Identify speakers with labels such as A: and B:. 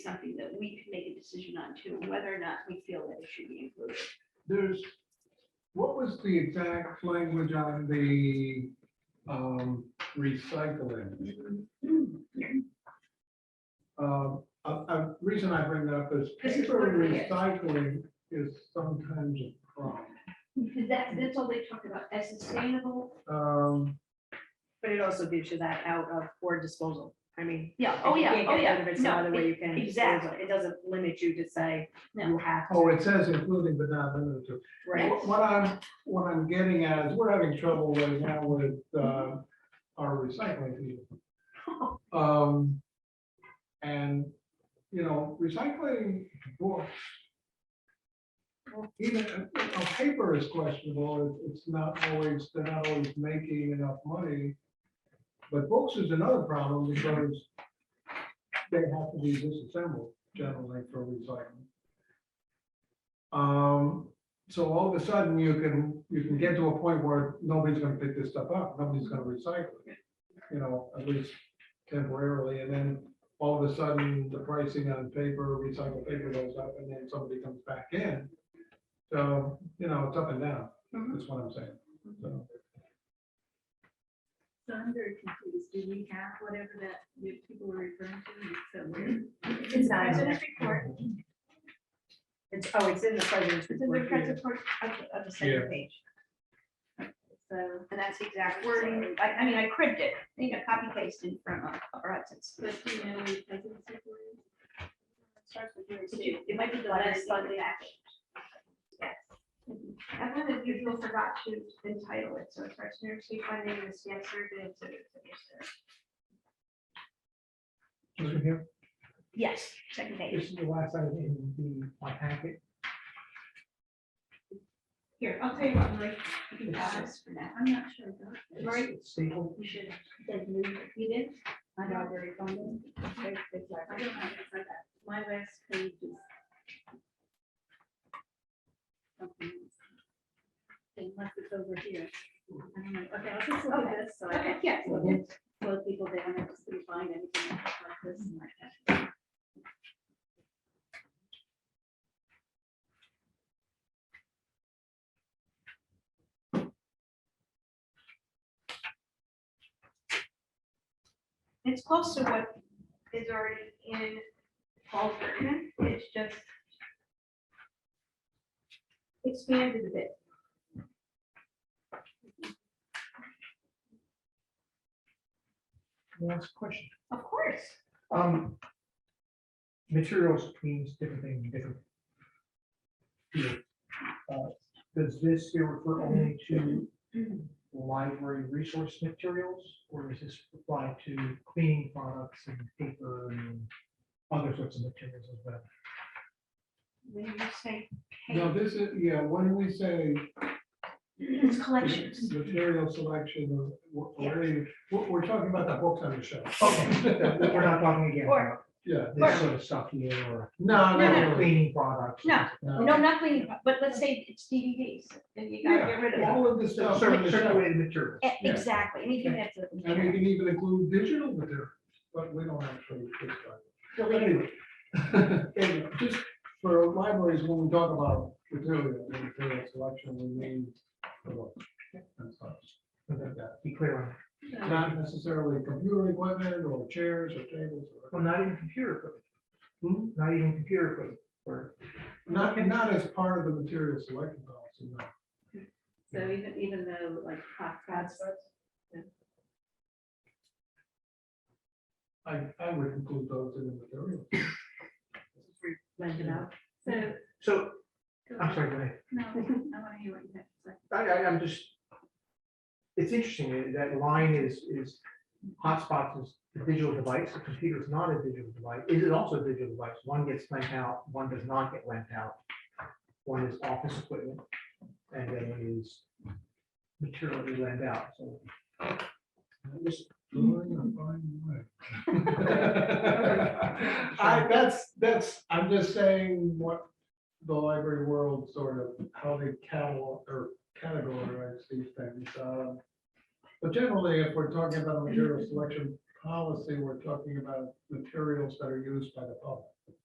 A: something that we can make a decision on too, whether or not we feel that it should be included.
B: There's, what was the exact language on the um, recycling? Uh, A, a reason I bring that up is
A: This is
B: paper
A: literally it.
B: recycling is sometimes a problem.
A: Because that, that's all they talk about, as sustainable,
B: Um,
C: But it also gives you that out of or disposal. I mean.
A: yeah,
C: if
A: oh,
C: you
A: yeah,
C: can't
A: oh,
C: get
A: yeah.
C: rid of it some
A: No,
C: other way
A: it-
C: you can dispose of e- it.
A: Exactly.
C: It doesn't limit you to say
A: No.
C: you have
B: Oh,
C: to,
B: it says including but not limited to.
C: right?
B: What- What I'm, what I'm getting at is we're having trouble right now with uh, our recycling people. Um, And, you know, recycling books. well, Even uh, uh, paper is questionable. It- It's not always, they're not always making enough money. But books is another problem because they have to be disassembled generally for recycling. Um, so all of a sudden, you can, you can get to a point where nobody's gonna pick this stuff up, nobody's gonna recycle it. You know, at least temporarily, and then all of a sudden, the pricing on paper, recycled paper goes up, and then somebody comes back in. So, you know, it's up and down, that's what I'm saying, so.
D: So I'm very confused. Do we have whatever that the people are referring to? So we're-
C: It's not in
A: President's
C: there.
A: report,
C: It's, oh, it's in the president's
A: it's in the
C: report. here.
A: president's report of, the- of the second
B: Yeah.
A: page.
D: So,
A: And that's the exact wording, I, I mean, I cribbed it, I think I copy pasted from, uh, Robertson's.
D: but do you know, we doesn't say we're-
A: Starts with yours, too. It might be the last Sunday action. I have as usual forgot to entitle it, so it starts near to funding the stamp survey. et cetera, et cetera, et cetera.
B: Just right here,
A: Yes, second
B: This
A: page,
B: is the last item in the, my packet.
A: here, I'll tell you what, Marie, you can have this for now,
D: I'm not sure. about that.
B: It's-
A: Right.
B: it's stapled.
A: you should, then move, you did, I know, very funding.
D: I don't have it like that. My last page is. something else. Unless it's over here. I don't know. Okay, I'll just look at this. So I
A: Okay, yes,
D: so that so that people, they don't have to find anything like this and like that.
A: it's close to what is already in Paul's version, it's just expanded a bit.
E: Last question.
A: Of course.
E: Um, materials means different things, in different. fields. Uh, Does this here refer only to library resource materials, or does this apply to cleaning products and paper and other sorts of materials as well?
A: When you say
B: Now,
A: paint,
B: this is, yeah, when we say
A: it's collections.
B: material selection, of what- where you- we're, we're talking about the books on the shelf.
E: Okay, We're not talking again about
B: Yeah,
E: this sort of stuff here, or
B: no, no,
A: No,
B: no, no.
E: cleaning products.
A: No.
B: no.
A: No, not cleaning, up, but let's say it's DVDs, and you gotta get rid of
B: Yeah,
A: them.
B: All of this stuff.
E: Cir- Circulated materials.
A: Eh,
B: yeah.
A: Exactly, anything that's a-
B: And we can even include digital material, but we don't actually. fix that.
A: deleted.
B: Anyway, anyway, Just for libraries, when we talk about material, the material selection, we mean. the book and stuff, like that.
E: Be clear on that.
B: Not necessarily computer equipment or chairs or tables or,
E: Well, not even computer equipment.
B: Hmm?
E: Not even computer equipment, or
B: not, not as part of the material selection policy, no.
D: So even, even though like hot spots.
B: I, I would include those in the material.
C: Lent it out.
D: So.
E: so,
D: go
E: I'm
D: on.
E: sorry, go ahead.
D: No, I want to hear what you have to say.
E: I, I, I'm just, it's interesting, that- that line is, is hotspots is a digital device, a computer is not a digital device, it is also a digital device, one gets lent out, one does not get lent out. One is office equipment, and then it is material we lend out, so. I'm just
B: Learn and find a way. I, that's, that's, I'm just saying what the library world sort of, how they catalog or categorize these things. Um, But generally, if we're talking about a material selection policy, we're talking about materials that are used by the public.